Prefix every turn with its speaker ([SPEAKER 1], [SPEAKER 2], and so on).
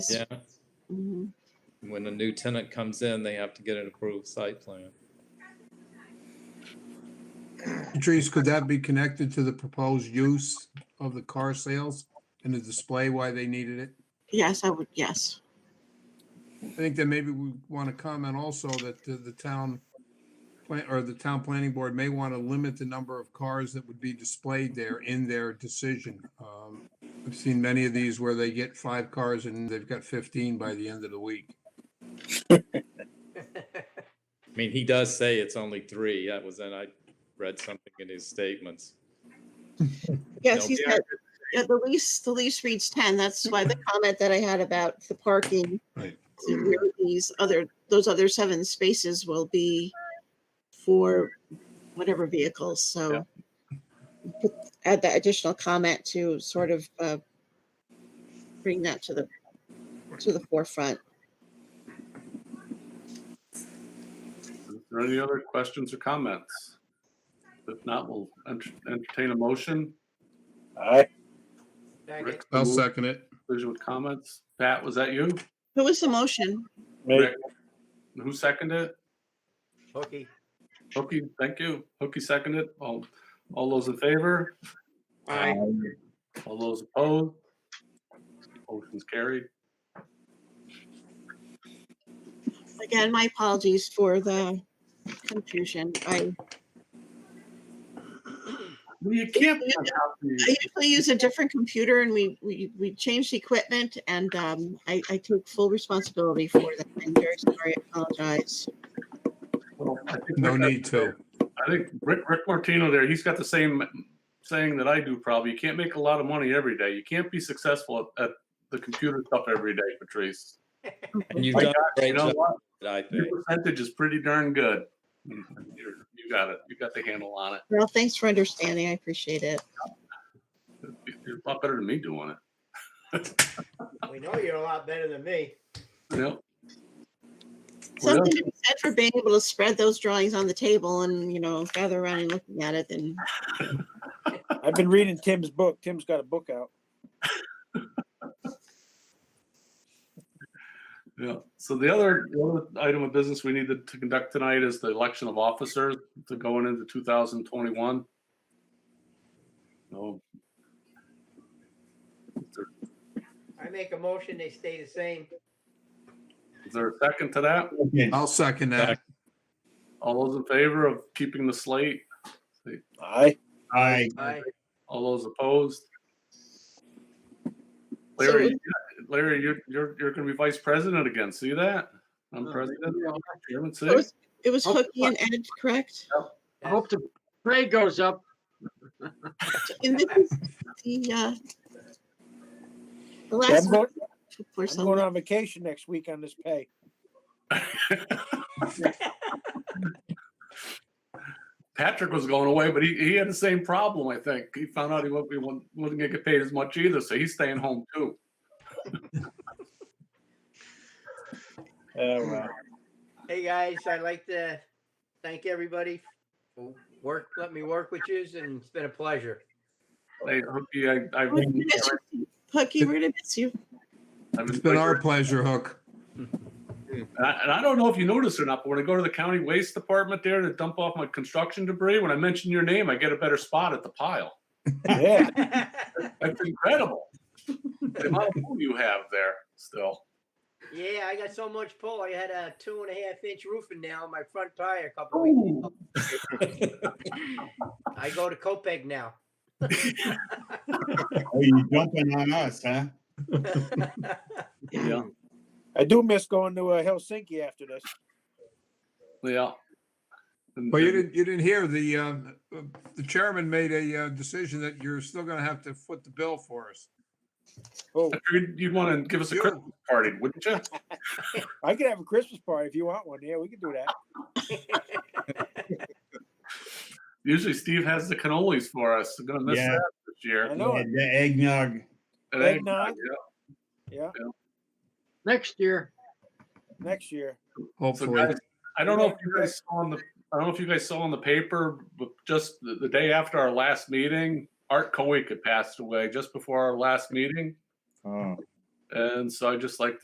[SPEAKER 1] Yeah,
[SPEAKER 2] Mhm.
[SPEAKER 1] when a new tenant comes in, they have to get an approved site plan.
[SPEAKER 3] Patrice, could that be connected to the proposed use of the car sales and the display why they needed it?
[SPEAKER 2] Yes, I would, yes.
[SPEAKER 3] I think that maybe we want to comment also that the, the town plan, or the town planning board may want to limit the number of cars that would be displayed there in their decision. Um, I've seen many of these where they get five cars and they've got fifteen by the end of the week.
[SPEAKER 1] I mean, he does say it's only three. That was, and I read something in his statements.
[SPEAKER 2] Yes,
[SPEAKER 1] No,
[SPEAKER 2] he's
[SPEAKER 1] we
[SPEAKER 2] got, yeah, the lease, the lease reads ten. That's why the comment that I had about the parking.
[SPEAKER 3] Right.
[SPEAKER 2] where These other, those other seven spaces will be for whatever vehicles, so. put- Add that additional comment to sort of, uh, bring that to the, to the forefront.
[SPEAKER 4] Is there any other questions or comments? If not, we'll ent- entertain a motion.
[SPEAKER 5] Aye.
[SPEAKER 4] Rick,
[SPEAKER 3] I'll
[SPEAKER 4] move
[SPEAKER 3] second it.
[SPEAKER 4] conclusion with comments. Pat, was that you?
[SPEAKER 2] Who was the motion?
[SPEAKER 5] Me.
[SPEAKER 4] Rick, Who seconded it?
[SPEAKER 6] Hooky.
[SPEAKER 4] Hooky, thank you. Hooky seconded. All, all those in favor?
[SPEAKER 5] Aye.
[SPEAKER 4] All those opposed? Motion's carried.
[SPEAKER 2] Again, my apologies for the confusion. I,
[SPEAKER 4] Well, You can't.
[SPEAKER 2] I usually use a different computer and we, we, we changed equipment and, um, I, I took full responsibility for that. I'm very sorry, I apologize.
[SPEAKER 4] Well, I think
[SPEAKER 3] No
[SPEAKER 4] Rick-
[SPEAKER 3] need to.
[SPEAKER 4] I think Rick, Rick Martino there, he's got the same saying that I do probably. You can't make a lot of money every day. You can't be successful at, at the computer stuff every day, Patrice.
[SPEAKER 1] And you've
[SPEAKER 4] My
[SPEAKER 1] done
[SPEAKER 4] gosh,
[SPEAKER 1] a
[SPEAKER 4] You
[SPEAKER 1] great
[SPEAKER 4] know
[SPEAKER 1] job,
[SPEAKER 4] what?
[SPEAKER 1] I
[SPEAKER 4] Your
[SPEAKER 1] think.
[SPEAKER 4] percentage is pretty darn good. You're- You got it. You got the handle on it.
[SPEAKER 2] Well, thanks for understanding. I appreciate it.
[SPEAKER 4] You're a lot better than me doing it.
[SPEAKER 6] We know you're a lot better than me.
[SPEAKER 4] You know? Well,
[SPEAKER 2] Something to be said for being able to spread those drawings on the table and, you know, gather around and looking at it and
[SPEAKER 5] I've been reading Tim's book. Tim's got a book out.
[SPEAKER 4] Yeah. So the other, the other item of business we needed to conduct tonight is the election of officers to going into 2021. No. Is there-
[SPEAKER 6] I make a motion, they stay the same.
[SPEAKER 4] is there a second to that?
[SPEAKER 3] I'll second that.
[SPEAKER 4] All those in favor of keeping the slate?
[SPEAKER 5] Aye.
[SPEAKER 7] Aye.
[SPEAKER 6] Aye.
[SPEAKER 4] All those opposed?
[SPEAKER 2] So-
[SPEAKER 4] Larry, Larry, you're, you're, you're gonna be vice president again. See that? I'm president. Chairman, see?
[SPEAKER 2] it was, it was
[SPEAKER 7] Oh,
[SPEAKER 2] Hooky and Ed, correct?
[SPEAKER 7] I hope the pay goes up.
[SPEAKER 2] And this is the, uh, the last one
[SPEAKER 5] I'm going,
[SPEAKER 2] for
[SPEAKER 5] I'm going
[SPEAKER 2] some,
[SPEAKER 5] on vacation next week on this pay.
[SPEAKER 4] Patrick was going away, but he, he had the same problem, I think. He found out he wasn't, he wasn't wasn't gonna get paid as much either, so he's staying home too.
[SPEAKER 5] Oh, wow.
[SPEAKER 6] Hey, guys, I'd like to thank everybody for work, let me work with yous, and it's been a pleasure.
[SPEAKER 4] Hey, Hooky, I, I,
[SPEAKER 2] We're gonna miss you, Hooky, we're gonna miss you.
[SPEAKER 4] I've
[SPEAKER 3] It's been our pleasure, Hook.
[SPEAKER 4] And I, and I don't know if you noticed or not, but when I go to the county waste department there to dump off my construction debris, when I mention your name, I get a better spot at the pile.
[SPEAKER 5] Yeah.
[SPEAKER 4] That's incredible. the amount of room you have there still.
[SPEAKER 6] Yeah, I got so much pull. I had a two and a half inch roofing now on my front tire a couple weeks
[SPEAKER 4] Ooh.
[SPEAKER 6] ago. I go to Copeg now.
[SPEAKER 7] Are you dumping on us, huh?
[SPEAKER 4] Yeah,
[SPEAKER 5] I do miss going to uh, Helsinki after this.
[SPEAKER 4] yeah. And-
[SPEAKER 3] Well, you
[SPEAKER 4] and-
[SPEAKER 3] didn't, you didn't hear the, uh, uh, the chairman made a uh, decision that you're still going to have to foot the bill for us.
[SPEAKER 5] Oh,
[SPEAKER 4] I figured You'd want to give us a
[SPEAKER 3] You-
[SPEAKER 4] Christmas party, wouldn't you?
[SPEAKER 5] I could have a Christmas party if you want one. Yeah, we could do that.
[SPEAKER 4] Usually Steve has the cannolis for us. I'm gonna miss
[SPEAKER 7] Yeah.
[SPEAKER 4] that this
[SPEAKER 5] I
[SPEAKER 4] year.
[SPEAKER 5] know it.
[SPEAKER 7] The eggnog.
[SPEAKER 4] It ain't-
[SPEAKER 5] Eggnog.
[SPEAKER 4] yeah.
[SPEAKER 7] Next year.
[SPEAKER 5] Next year.
[SPEAKER 4] So
[SPEAKER 3] Hopefully.
[SPEAKER 4] guys, I don't know if you guys saw on the I don't know if you guys saw in the paper, but just the, the day after our last meeting, Art Kowick had passed away just before our last meeting.
[SPEAKER 7] Oh,
[SPEAKER 4] And so I just like